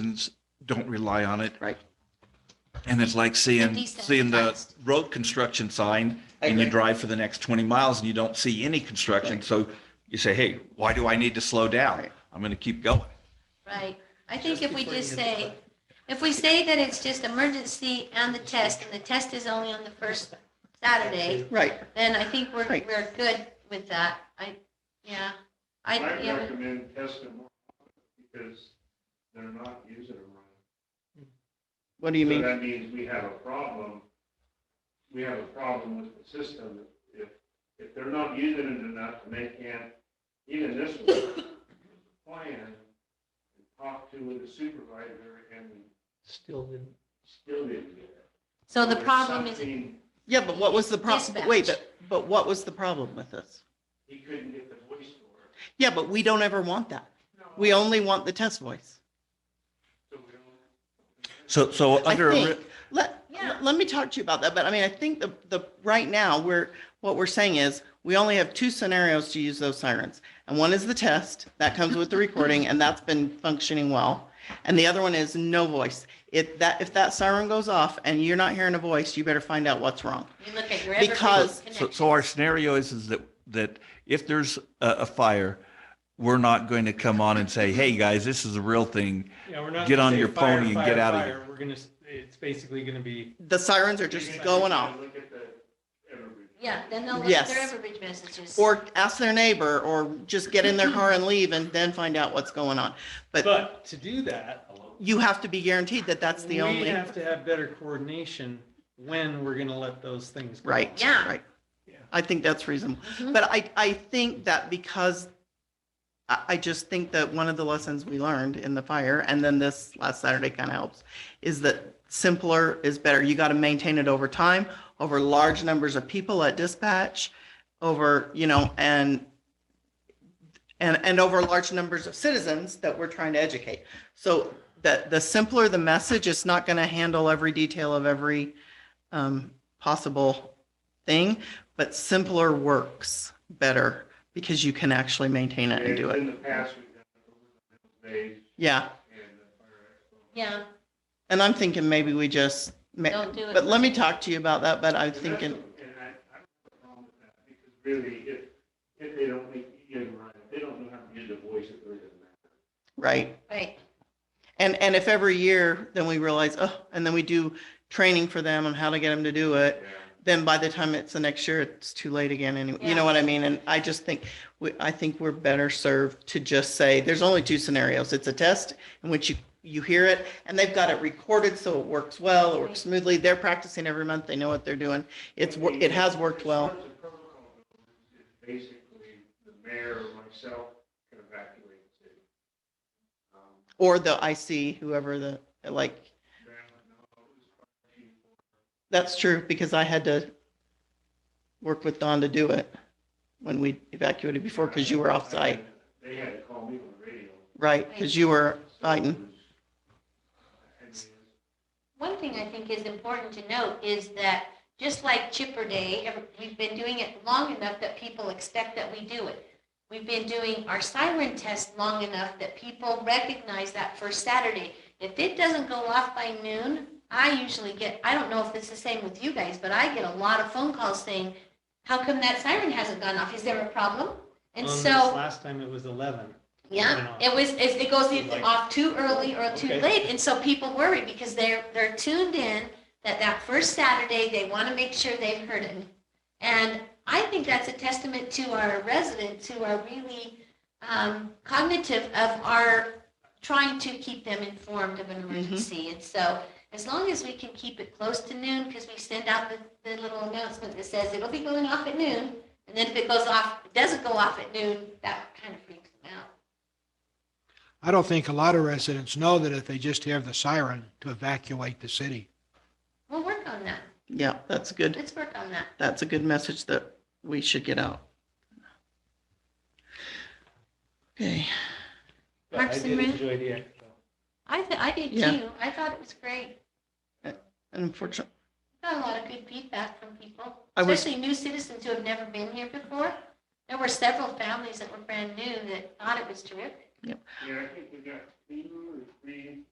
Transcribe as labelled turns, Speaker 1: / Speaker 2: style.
Speaker 1: citizens don't rely on it.
Speaker 2: Right.
Speaker 1: And it's like seeing,
Speaker 3: Desensitized.
Speaker 1: seeing the road construction sign
Speaker 2: I
Speaker 1: and you
Speaker 2: agree.
Speaker 1: drive for the next 20 miles and you don't see any construction.
Speaker 2: Right.
Speaker 1: So you say, hey, why do I need to slow down?
Speaker 2: Right.
Speaker 1: I'm going to keep going.
Speaker 3: Right, I think
Speaker 2: Just
Speaker 3: if we
Speaker 2: before you
Speaker 3: just
Speaker 2: hit the
Speaker 3: say,
Speaker 2: button.
Speaker 3: if we say that it's just emergency and the test, and the test is only on the first Saturday,
Speaker 2: Right,
Speaker 3: then I think we're,
Speaker 2: Right.
Speaker 3: we're good with that. I, yeah, I,
Speaker 4: I
Speaker 3: yeah,
Speaker 4: recommend testing more because they're not using them right.
Speaker 2: what do you
Speaker 4: So
Speaker 2: mean?
Speaker 4: That means we have a problem, we have a problem with the system. If, if they're not using it enough and they can't, even this one, plan, and talk to with the supervisor and
Speaker 5: Still didn't.
Speaker 4: still didn't get it.
Speaker 3: so the
Speaker 4: There's
Speaker 3: problem is,
Speaker 4: something-
Speaker 2: Yeah, but what was the problem? Wait, but, but what was the problem with this?
Speaker 4: He couldn't get the voice to work.
Speaker 2: Yeah, but we don't ever want that. We only want the test voice.
Speaker 4: So we don't,
Speaker 1: So, so
Speaker 2: I
Speaker 1: under, a
Speaker 2: think,
Speaker 1: re-
Speaker 2: let,
Speaker 3: Yeah.
Speaker 2: let me talk to you about that, but I mean, I think the, the, right now, we're, what we're saying is, we only have two scenarios to use those sirens. And one is the test, that comes with the recording, and that's been functioning well. And the other one is no voice. If that, if that siren goes off and you're not hearing a voice, you better find out what's wrong.
Speaker 3: you look at your every
Speaker 2: Because-
Speaker 1: so, so our scenario is, is that, that if there's a, a fire, we're not going to come on and say, hey, guys, this is a real thing.
Speaker 5: Yeah, we're not.
Speaker 1: Get
Speaker 5: gonna
Speaker 1: on
Speaker 5: say
Speaker 1: your
Speaker 5: fire,
Speaker 1: pony and
Speaker 5: fire,
Speaker 1: get out of
Speaker 5: fire. We're gonna, s- it's basically gonna be,
Speaker 2: The sirens are just
Speaker 3: Oh,
Speaker 2: going off.
Speaker 4: look at the, everybody.
Speaker 3: Yeah, then they'll look at
Speaker 2: Yes.
Speaker 3: their Everbridge messages.
Speaker 2: Or ask their neighbor, or just get in their car and leave and then find out what's going on. But
Speaker 5: but to do that,
Speaker 2: you have to be guaranteed that that's the
Speaker 5: We
Speaker 2: only,
Speaker 5: have to have better coordination when we're gonna let those things go.
Speaker 2: right?
Speaker 3: Yeah.
Speaker 2: Right.
Speaker 5: Yeah.
Speaker 2: I think that's reasonable.
Speaker 3: Mhm.
Speaker 2: But I, I think that because I, I just think that one of the lessons we learned in the fire, and then this last Saturday kind of helps, is that simpler is better. You got to maintain it over time, over large numbers of people at dispatch, over, you know, and and, and over large numbers of citizens that we're trying to educate. So the, the simpler the message, it's not going to handle every detail of every um, possible thing, but simpler works better because you can actually maintain it and do it.
Speaker 4: In the past, we've done it over the days
Speaker 2: Yeah.
Speaker 4: and the fire.
Speaker 3: Yeah,
Speaker 2: And I'm thinking maybe we just, ma-
Speaker 3: Don't do it.
Speaker 2: but let me talk to you about that, but I'm thinking,
Speaker 4: And I, I don't have a problem with that, because really, if, if they don't make, you know, right, if they don't know how to use their voice, it really doesn't matter.
Speaker 2: right.
Speaker 3: right,
Speaker 2: And, and if every year, then we realize, oh, and then we do training for them on how to get them to do it. then by the time it's the next year, it's too late again. And you
Speaker 3: Yeah.
Speaker 2: know what I mean? And I just think, we, I think we're better served to just say, there's only two scenarios. It's a test in which you, you hear it and they've got it recorded. So it works well, it works smoothly. They're practicing every month. They know what they're doing. It's, wor- it has worked well.
Speaker 4: As far as the protocol goes, it's Basically, the mayor or myself can evacuate the city. Um,
Speaker 2: Or the IC, whoever the, like,
Speaker 4: Graham, no, it was fire chief.
Speaker 2: that's true because I had to work with Don to do it when we evacuated before because you were off site,
Speaker 4: They had to call me on the radio.
Speaker 2: right? Because you were
Speaker 4: so it
Speaker 2: fighting.
Speaker 4: was- I mean,
Speaker 3: One thing I think is important to note is that, just like Chipper Day, ever- we've been doing it long enough that people expect that we do it. We've been doing our siren test long enough that people recognize that first Saturday. If it doesn't go off by noon, I usually get, I don't know if it's the same with you guys, but I get a lot of phone calls saying, how come that siren hasn't gone off? Is there a problem? And
Speaker 5: On Um, this
Speaker 3: so.
Speaker 5: Last time it was eleven.
Speaker 3: Yeah, it was, it it goes either
Speaker 5: Like-
Speaker 3: off too early or too
Speaker 5: Okay.
Speaker 3: late, and so people worry because they're, they're tuned in that that first Saturday, they want to make sure they've heard it. And I think that's a testament to our residents who are really um, cognitive of our trying to keep them informed of an emergency. And so as long as we can keep it close to noon, because we send out the, the little announcement that says it'll be going off at noon. And then if it goes off, it doesn't go off at noon, that kind of freaks them out.
Speaker 6: I don't think a lot of residents know that if they just hear the siren to evacuate the city.
Speaker 3: We'll work on that.
Speaker 2: Yeah, that's good.
Speaker 3: Let's work on that.
Speaker 2: that's a good message that we should get out. Okay,
Speaker 5: but I
Speaker 3: Parks and
Speaker 5: did
Speaker 3: Rec?
Speaker 5: enjoy the expo.
Speaker 3: I, th- I did
Speaker 2: Yeah.
Speaker 3: too. I thought it was great.
Speaker 2: unfortunately,
Speaker 3: Got a lot of good feedback from people,
Speaker 2: I was-
Speaker 3: especially new citizens who have never been here before. There were several families that were brand new that thought it was terrific.
Speaker 4: Yeah, I think we got two or three